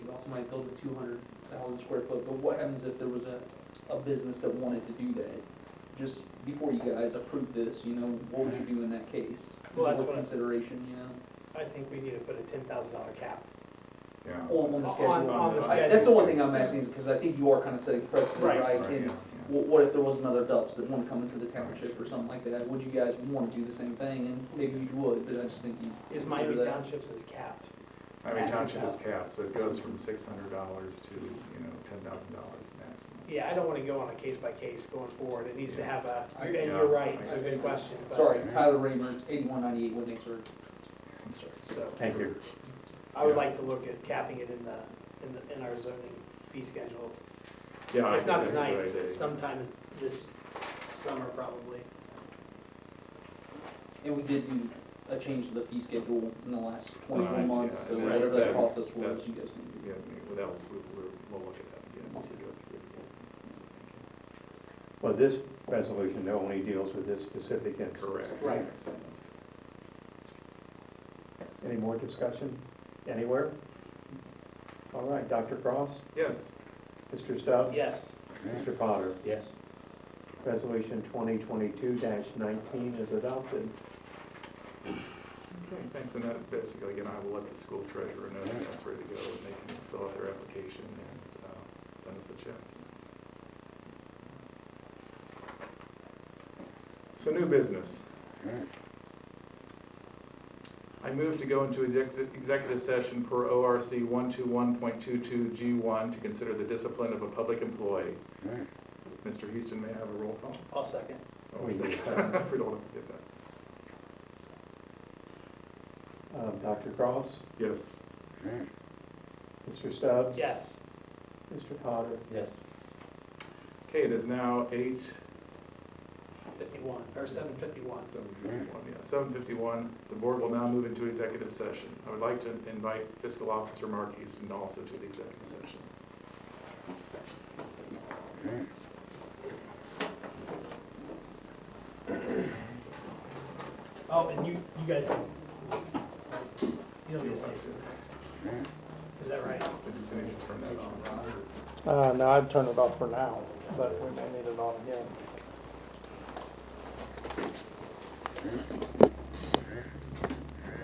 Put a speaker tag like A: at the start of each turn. A: might build a two hundred thousand square foot, but what happens if there was a, a business that wanted to do that? Just before you guys approve this, you know, what would you do in that case?
B: Well,
A: Is it
B: that's what
A: worth
B: I-
A: consideration, you know?
B: I think we need to put a ten thousand dollar cap.
C: Yeah.
A: On, on the
B: On-
A: schedule.
B: on
C: the
A: I- That's the
C: schedule.
A: one thing I'm asking is because I think you are kind of setting precedent,
B: Right.
A: right?
C: Right,
A: And
C: yeah, yeah.
A: What, what if there was another Dubs that wanted to come into the township or something like that? Would you guys want to do the same thing? And maybe you would, but I just think you.
B: Is
A: consider
B: Miami
A: that.
B: Townships is capped.
C: I mean,
B: That's
C: township is
B: about-
C: capped, so it goes from six hundred dollars to, you know, ten thousand dollars maximum.
B: Yeah, I don't wanna go on a case by case going forward, it needs to have a,
A: I-
B: and
C: yeah.
B: you're right, it's a good question, but-
A: Sorry, Tyler Raymer, eighty-one ninety-eight Woodnixburg.
B: So,
C: Thank you.
B: I would
C: Yeah.
B: like to look at capping it in the, in the, in our zoning fee schedule.
C: Yeah, I
B: If
C: think
B: not
C: that's a
B: tonight,
C: good idea.
B: sometime this summer probably.
A: And we did do a change to the fee schedule in the last twenty-four
C: Right,
A: months,
C: yeah,
A: so
C: and that-
A: whatever that
C: that-
A: process was,
C: that-
A: you guys can do.
C: Yeah, I mean, well, that will, we'll, we'll- we'll look at that again as we go through it. again. So,
D: Well, this resolution only deals with this specific
C: thank you.
D: instance.
C: Correct.
B: Right.
C: Makes sense.
D: Any more discussion anywhere? All right, Dr. Cross,
C: Yes,
D: Mr. Stubbs?
B: Yes,
D: Mr. Potter?
E: Yes.
D: Resolution 2022-19 is adopted.
C: thanks, and that basically, again, I will let the school treasurer know that that's ready to go, and they can fill out their application and, uh, send us a check. So new business. I move to go into exec- executive session per ORC 121.22G1 to consider the discipline of a public employee. Mr. Houston, may I have a roll call?
B: I'll second.
C: Oh,
D: We
C: sorry.
D: need that.
C: We don't want to forget that.
D: Um, Dr. Cross,
C: Yes,
D: Mr. Stubbs?
B: Yes.
D: Mr. Potter?
E: Yes.
C: okay, it is now eight,
B: Fifty-one, or seven fifty-one.
C: seven fifty-one, yeah, seven fifty-one. The board will now move into executive session. I would like to invite fiscal officer Mark Houston also to the executive session.
B: Oh, and you, you guys, you don't
C: Do you
B: need to say,
C: want to-
B: is that right?
C: I just need to turn that on.
F: Uh, no, I've turned it off for now, but we may need it on again.